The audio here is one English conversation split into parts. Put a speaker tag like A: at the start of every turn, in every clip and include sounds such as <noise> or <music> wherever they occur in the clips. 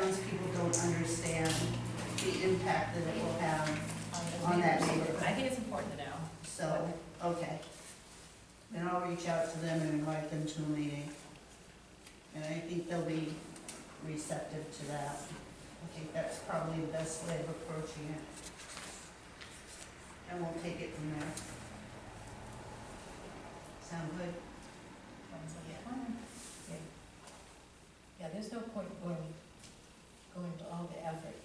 A: townspeople don't understand the impact that it will have, On that neighborhood.
B: Um, I think it's important to know.
A: so, okay. Then I'll reach out to them and invite them to a meeting. And I think they'll be receptive to that. I think that's probably the best way of approaching it. And we'll take it from there. Sound good?
C: Yeah. Yeah, there's no point going, going to all the effort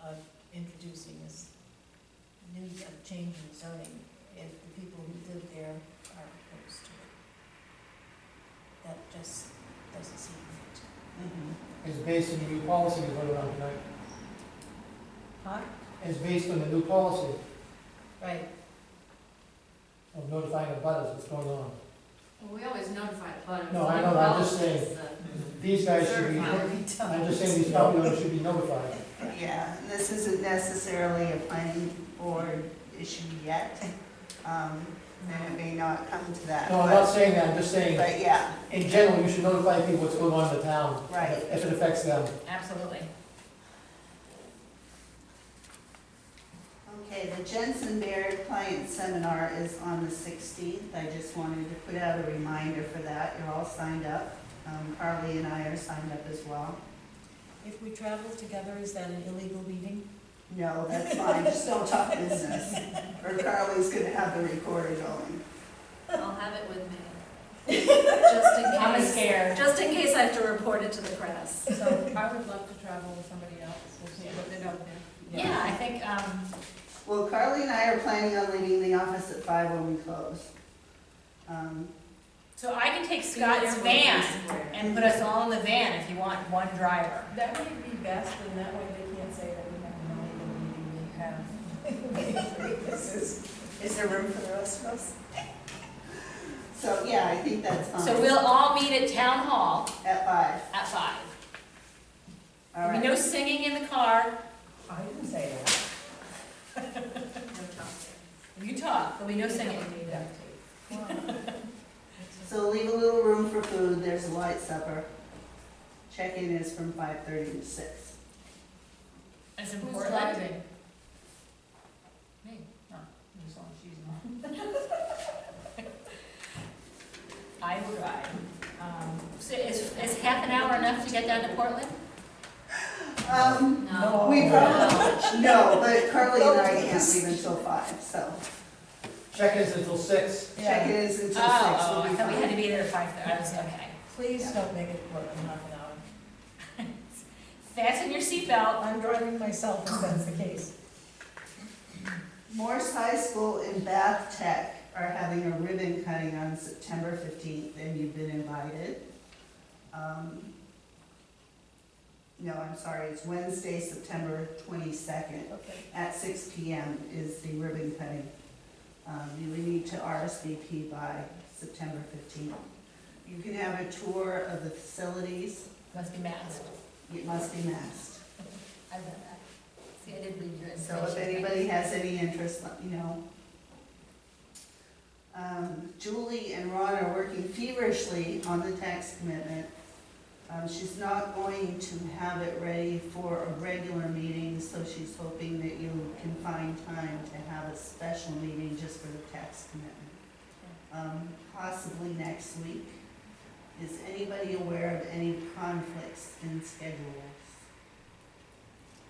C: of introducing this new of change in zoning if the people who live there are opposed to it. That just doesn't seem right.
A: Mm-hmm.
D: is based on the new policy we voted on tonight,
C: Huh?
D: is based on the new policy
C: Right,
D: of notifying the butters what's going on.
E: Well, we always notify the butters.
D: No, I know, I'm just saying.
E: uh,
D: These guys should be,
E: Certified.
D: I'm just saying these property owners should be notified.
A: Yeah, and this isn't necessarily a planning board issue yet. Um, and it may not come to that.
D: No, I'm
A: but-
D: not saying that, I'm just saying,
A: But yeah,
D: in general, you should notify people what's going on in the town.
A: Right.
D: If it affects them.
B: Absolutely.
A: okay, the Jensen Baird Client Seminar is on the 16th. I just wanted to put out a reminder for that. You're all signed up. Um, Carly and I are signed up as well.
C: if we travel together, is that an illegal meeting?
A: No, that's fine, just don't talk business. Or Carly's gonna have the recorder going.
E: I'll have it with me. Just in
B: I'm
E: case,
B: scared.
E: just in case I have to report it to the press.
F: So I would love to travel with somebody else, we'll see what they don't do.
B: Yeah, I think, um,
A: Well, Carly and I are planning on leaving the office at 5 when we close. Um,
B: so I can take Scott's van and put us all in the van if you want one driver.
F: That would be best, and that way they can't say that we have an illegal meeting we have.
A: Is there room for the rest of us? So, yeah, I think that's fine.
B: So we'll all meet at town hall
A: At 5,
B: at five.
A: all right.
B: No singing in the car.
F: I didn't say that.
B: You talk, there'll be no singing. <laughs>
A: So leave a little room for food, there's a light supper. Check-in is from five thirty to six.
B: It's
C: Who's
B: important.
C: driving?
B: Me, no, as long as she's not. <laughs> I will drive. Um, So is, is half an hour enough to get down to Portland?
A: Um,
E: No.
A: we probably,
B: Oh,
E: No.
A: no, but Carly
B: <laughs>
A: and I can't leave until five, so
D: Check-ins until six.
A: check-in is until
B: Oh,
A: six,
B: oh,
A: we'll
B: I
A: be
B: thought we had to
A: fine.
B: be there at five thirty, I was, okay.
C: Please don't make it work in half an hour.
B: <laughs> Fasten your seatbelt.
C: I'm driving myself if that's the case.
A: <laughs> Morse High School and Bath Tech are having a ribbon cutting on September fifteenth, and you've been invited. Um, No, I'm sorry, it's Wednesday, September twenty-second.
C: Okay.
A: at six P M is the ribbon cutting. Um, you will need to R S V P by September fifteenth. You can have a tour of the facilities,
B: Must be masked.
A: it must be masked.
E: I've done that. See, I did leave your information.
A: So if anybody has any interest, let me know. Um, Julie and Ron are working feverishly on the tax commitment. Um, she's not going to have it ready for a regular meeting, so she's hoping that you can find time to have a special meeting just for the tax commitment. Um, possibly next week. Is anybody aware of any conflicts in schedules?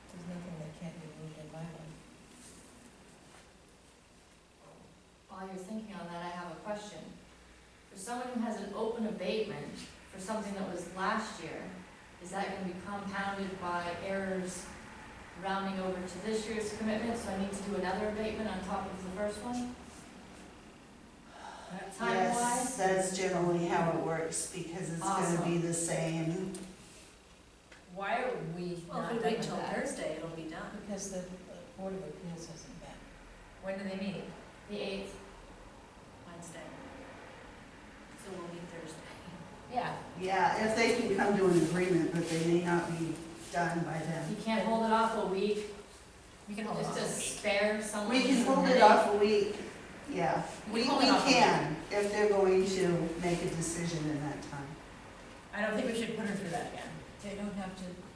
C: There's nothing that can't be moved in my life.
E: While you're thinking on that, I have a question. For someone who has an open abatement for something that was last year, is that gonna be compounded by errors rounding over to this year's commitment, so I need to do another abatement on top of the
A: <sighs>
E: first one? Time
A: Yes,
E: wise?
A: that's generally how it works, because it's gonna be the same.
B: Why are we
E: Well,
B: not
E: if we
B: done
E: wait
B: with
E: till
B: that?
E: Thursday, it'll be done.
C: Because the uh, Board of Appeals hasn't met.
B: When do they meet?
E: The eighth, Wednesday. So we'll meet Thursday.
B: Yeah,
A: Yeah, if they can come to an agreement, but they may not be done by then.
E: You can't hold it off a week,
B: we can hold
E: just
B: off.
E: to spare someone.
A: We can
E: from
A: hold it
E: headache.
A: off a week, yeah. We,
E: We
A: we
E: can hold it off a week.
A: can, if they're going to make a decision in that time.
B: I don't think we should put her through that again.
C: They don't have to